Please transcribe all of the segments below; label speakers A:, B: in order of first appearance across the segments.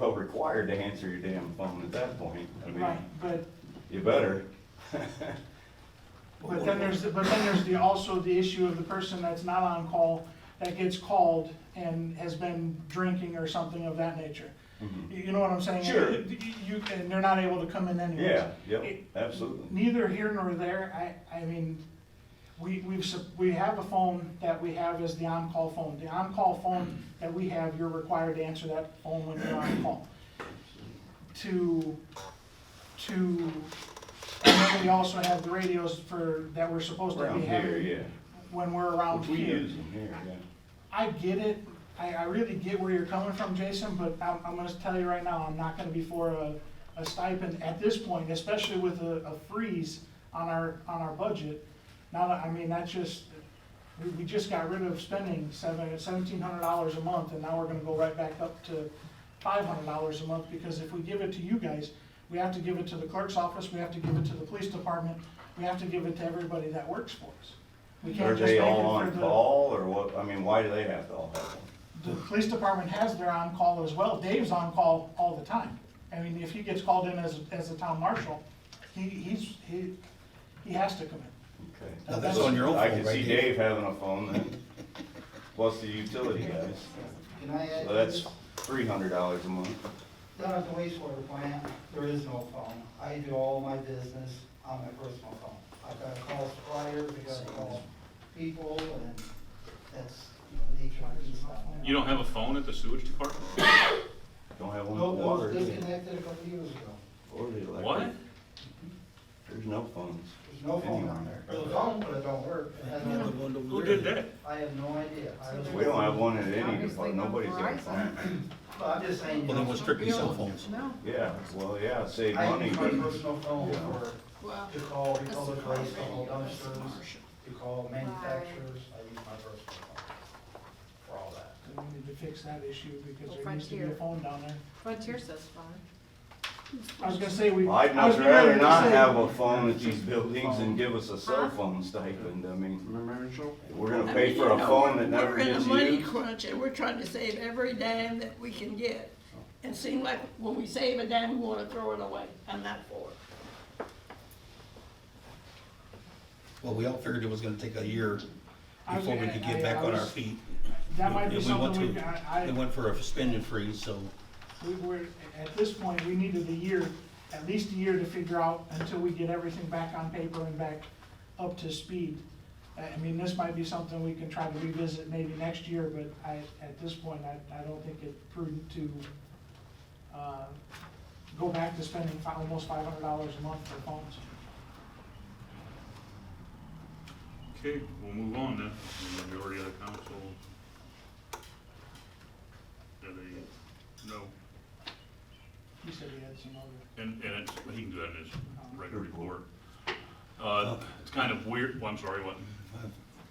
A: well required to answer your damn phone at that point. I mean,
B: Right, but,
A: you better.
B: but then there's, but then there's the, also the issue of the person that's not on call, that gets called and has been drinking or something of that nature.
A: Mhm.
B: You you know what I'm saying?
A: Sure.
B: You- You, and they're not able to come in anyways.
A: Yeah, yep,
B: It-
A: absolutely.
B: Neither here nor there, I, I mean, we, we've, sup- we have a phone that we have is the on-call phone. The on-call phone that we have, you're required to answer that phone when you're on call. To, to, and then we also have the radios for, that we're supposed to
A: Around
B: be
A: here,
B: having
A: yeah.
B: when we're around
A: Which we
B: here.
A: use them here, yeah.
B: I get it, I, I really get where you're coming from, Jason, but I'm, I'm gonna tell you right now, I'm not gonna be for a, a stipend at this point, especially with a, a freeze on our, on our budget. Now, that- I mean, that's just, we, we just got rid of spending seven, seventeen hundred dollars a month, and now we're gonna go right back up to five hundred dollars a month, because if we give it to you guys, we have to give it to the clerk's office, we have to give it to the police department, we have to give it to everybody that works for us. We
A: Are
B: can't just make
A: they
B: it
A: all on
B: for the-
A: call or what? I mean, why do they have to all have one?
B: the police department has their on-call as well. Dave's on-call all the time. I mean, if he gets called in as, as a town marshal, he, he's, he, he has to come in.
A: Okay.
C: Now, Oh, that's on your own
A: I
C: phone
A: can see
C: right here.
A: Dave having a phone then, plus the utility guys.
D: Can I add?
A: So that's three hundred dollars a month.
D: Down at the wastewater plant, there is no phone. I do all my business on my personal phone. I've got to call suppliers, I've got to call people, and that's the nature of this stuff.
E: You don't have a phone at the sewage department?
A: Don't have one for
D: Nope, Oh, it was
A: water. do they?
D: disconnected a couple years ago.
A: Or the electric.
E: What?
A: There's no phones.
D: There's no phone on there. There's a phone, but it don't work. It has
C: Another
D: no-
C: one over
E: Who
C: there.
E: did that?
D: I have no idea. I was-
A: We don't have one at any
F: Obviously
A: department,
F: not
A: nobody's got a
F: Verizon.
A: phone.
D: Well, I'm just saying, you
C: Well, then
D: know,
C: we're strictly cell phones.
F: No,
A: Yeah, well, yeah, save
D: I
A: money,
D: use my
A: but
D: personal phone
A: Yeah.
D: for,
F: well.
D: to call
F: that's
D: Republic
F: not
D: Waste, to call
F: radio, that's
D: dumpsters,
F: commercial.
D: to call manufacturers. I use my personal phone for all that.
B: So we need to fix that issue because there
F: Well,
B: needs to be a
F: Frontier.
B: phone down there.
F: Frontier says fine.
B: I was gonna say, we.
A: I'd
B: I was
A: much
B: getting ready
A: rather
B: to
A: not
B: say-
A: have a phone at these buildings and give us a cell
F: Huh?
A: phone stipend, I mean,
G: Remember, Mitchell?
A: we're gonna pay for a phone that never gets
H: We're in a money
A: used.
H: crunch and we're trying to save every dime that we can get. And seem like when we save a dime, we wanna throw it away. I'm not for it.
C: Well, we all figured it was gonna take a year
B: I was
C: before we
B: gonna-
C: could
B: I-
C: get back
B: I
C: on our
B: was-
C: feet.
B: That might be
C: And we went
B: something we,
C: to-
B: I,
C: They
B: I,
C: went for a spending freeze, so
B: we were, at this point, we needed a year, at least a year to figure out until we get everything back on paper and back up to speed. I I mean, this might be something we can try to revisit maybe next year, but I, at this point, I, I don't think it's prudent to, uh, go back to spending fi- almost five hundred dollars a month for phones.
E: Okay, we'll move on then. The Majority of the council. Yeah, they, no,
B: He said he had some other,
E: and, and it's, he can do that in his regular report. Uh,
C: Oh.
E: it's kind of weird, well, I'm sorry, what?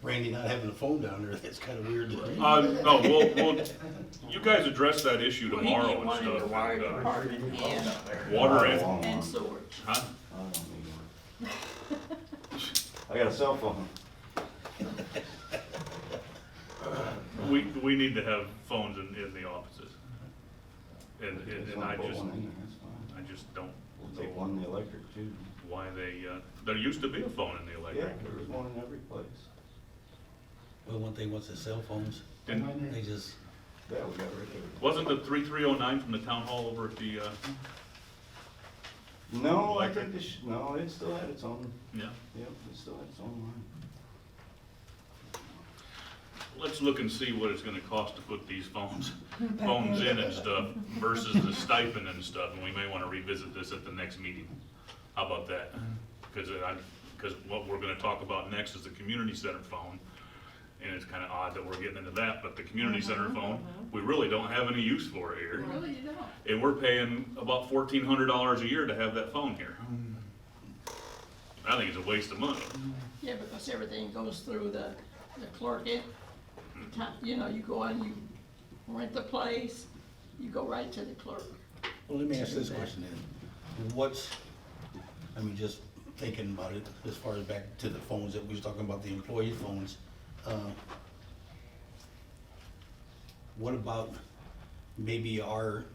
C: Randy not having a phone down there, that's kinda weird.
E: Uh, no, we'll, we'll, you guys address that issue
H: Well, he
E: tomorrow
H: did
E: and
H: one in the
E: stuff.
H: water
E: and, uh,
H: department and-
E: Water
A: I
E: and,
A: want one.
H: And sewage.
E: huh?
A: I don't need one. I got a cell phone.
E: We, we need to have phones in, in the offices. And, and and I
A: Put
E: just,
A: one in there, that's fine.
E: I just don't
A: We'll take
E: know
A: one in the electric too.
E: why they, uh, there used to be a phone in the
A: Yeah,
E: electric.
A: there was one in every place.
C: Well, one thing was the cell phones,
E: And
C: they just,
A: Yeah, we got rid of it.
E: wasn't the three-three oh nine from the town hall over at the, uh,
A: No, I
E: Electric?
A: think this, no, it still had its own,
E: yeah?
A: yep, it still had its own line.
E: Let's look and see what it's gonna cost to put these phones, phones in and stuff versus the stipend and stuff, and we may wanna revisit this at the next meeting. How about that? Cause I, cause what we're gonna talk about next is the community center phone, and it's kinda odd that we're getting into that, but the community center phone, we really don't have any use for it here.
H: Really, you don't.
E: And we're paying about fourteen hundred dollars a year to have that phone here. I think it's a waste of money.
H: Yeah, because everything goes through the, the clerk in. You know, you go and you rent the place, you go right to the clerk.
C: well, let me ask this question then. What's, I mean, just thinking about it, as far as back to the phones that we was talking about, the employee phones, uh, what about maybe our